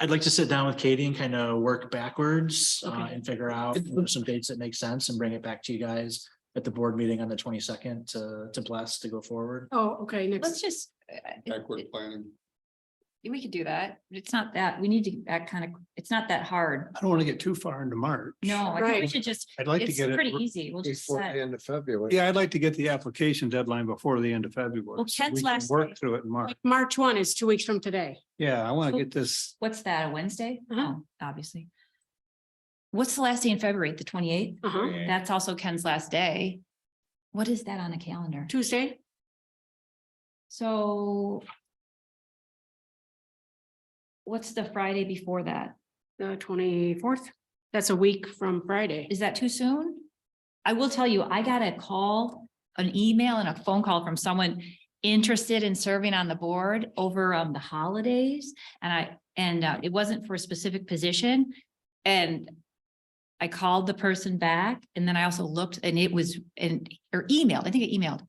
I'd like to sit down with Katie and kind of work backwards uh, Okay. and figure out you know, some dates that make sense and bring it back to you guys at the board meeting on the twenty-second to, to bless to go forward. Oh, okay, Let's next, just, I- I- backward planning. we could do that. It's not that, we need to, that kind of, it's not that hard. I don't want to get too far into March. No, I think we Right. should just, I'd like to it's get it, pretty easy. We'll just Before the set. end of February. yeah, I'd like to get the application deadline before the end of February. Well, so Ken's we can last day. Work through it in March. like March one is two weeks from today. Yeah, I want So- to get this, What's that, a Wednesday? Uh-huh. Oh, obviously. What's the last day in February? The twenty eighth? Uh huh, That's also Ken's last day. What is that on the calendar? Tuesday, So what's the Friday before that? the twenty-fourth. That's a week from Friday. Is that too soon? I will tell you, I got a call, an email and a phone call from someone interested in serving on the board over um the holidays. And I, and uh, it wasn't for a specific position. And I called the person back and then I also looked and it was, and, or emailed, I think I emailed.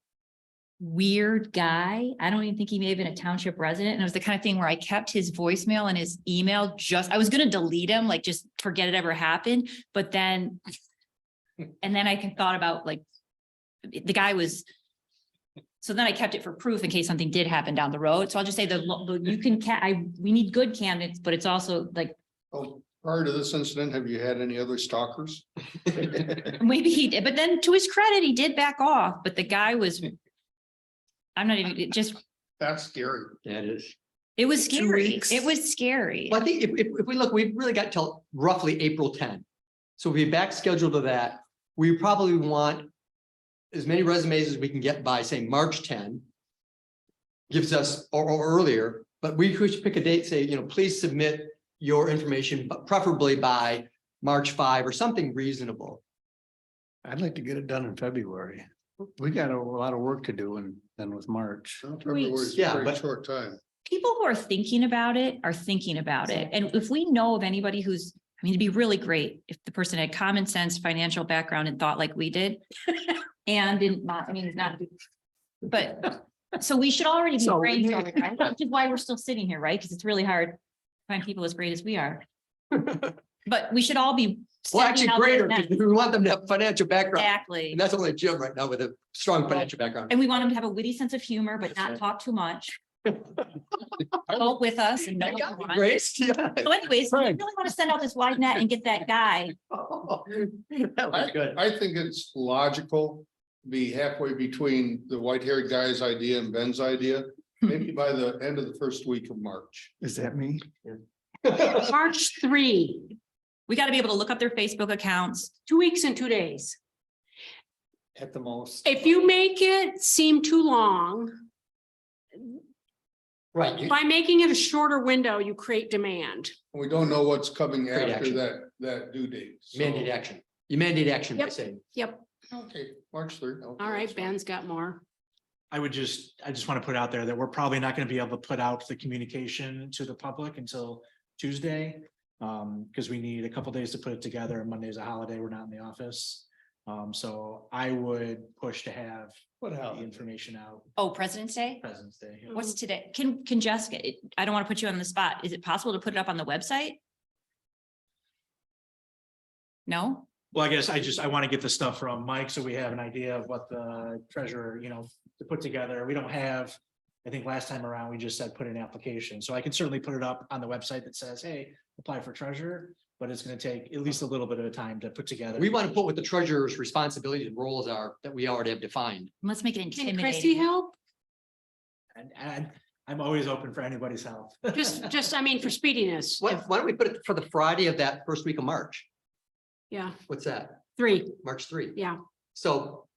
Weird guy. I don't even think he may have been a township resident. And it was the kind of thing where I kept his voicemail and his email just, I was gonna delete him, like just forget it ever happened. But then, and then I can thought about like, the guy was, so then I kept it for proof in case something did happen down the road. So I'll just say the, lo- the- you can, ca- I, we need good candidates, but it's also like, Oh, Prior to this incident, have you had any other stalkers? maybe he did, but then to his credit, he did back off, but the guy was, I'm not even, it just, That's scary. That is. it was Two scary. weeks. It was scary. Well, I think if, if, if we look, we've really got till roughly April ten. So if we back scheduled to that, we probably want as many resumes as we can get by, say, March ten. Gives us, or, or earlier, but we should pick a date, say, you know, please submit your information, but preferably by March five or something reasonable. I'd like to get it done in February. We got a lot of work to do and then with March. February's a Yeah, very but- Short time. people who are thinking about it are thinking about it. And if we know of anybody who's, I mean, it'd be really great if the person had common sense, financial background and thought like we did. And didn't, mo- I mean, not, but, so we should already be So we- brainstorming, right? Which is why we're still sitting here, right? Because it's really hard to find people as great as we are. But we should all be. Well, stepping actually out greater, of that. because we want them to have financial background, Exactly. and that's only Jim right now with a strong financial background. And we want them to have a witty sense of humor, but not talk too much. Vote with us and. know That what got we me, want. Grace, yeah. So anyways, we really Frank. want to send out this wide net and get that guy. That was good. I think it's logical, to be halfway between the white haired guy's idea and Ben's idea, maybe by the end of the first week of March. Is that me? March three, We got to be able to look up their Facebook accounts. two weeks and two days. At the most. If you make it seem too long, Right, you- by making it a shorter window, you create demand. We don't know what's coming Great after action. that, that due date. so- mandate action. You mandate action by Yep. saying, Yep, Okay, March third. okay, all right, that's fine. Ben's got more. I would just, I just want to put out there that we're probably not going to be able to put out the communication to the public until Tuesday. Um, because we need a couple days to put it together. Monday's a holiday. We're not in the office. Um, so I would push to have what the hell? information out Oh, President's Day? President's Day. What's today? Can, can Jessica, I don't want to put you on the spot. Is it possible to put it up on the website? No? Well, I guess I just, I want to get the stuff from Mike, so we have an idea of what the treasurer, you know, to put together. We don't have. I think last time around, we just said put in an application, so I can certainly put it up on the website that says, hey, apply for treasurer. But it's gonna take at least a little bit of time to put together. We want to put what the treasurer's responsibilities and roles are that we already have defined. Let's make it Can Chrissy intimidating. help? And, and I'm always open for anybody's help. Just, just, I mean, for speediness. Why, why don't we put it for the Friday of that first week of March? Yeah, What's that? three, March three? yeah. So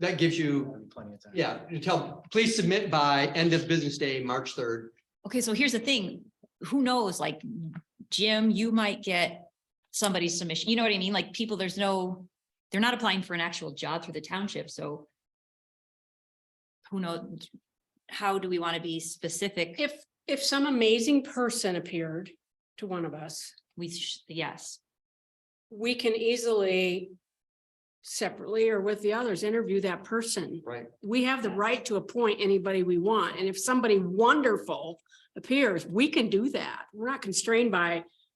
that gives you, Plenty of time. yeah, you tell, please submit by end of business day, March third. Okay, so here's the thing. Who knows? Like Jim, you might get somebody's submission. You know what I mean? Like people, there's no, they're not applying for an actual job through the township, so who knows? How do we want to be specific? If, if some amazing person appeared to one of us, We, sh- yes, we can easily separately or with the others, interview that person. Right. We have the right to appoint anybody we want. And if somebody wonderful appears, we can do that. We're not constrained by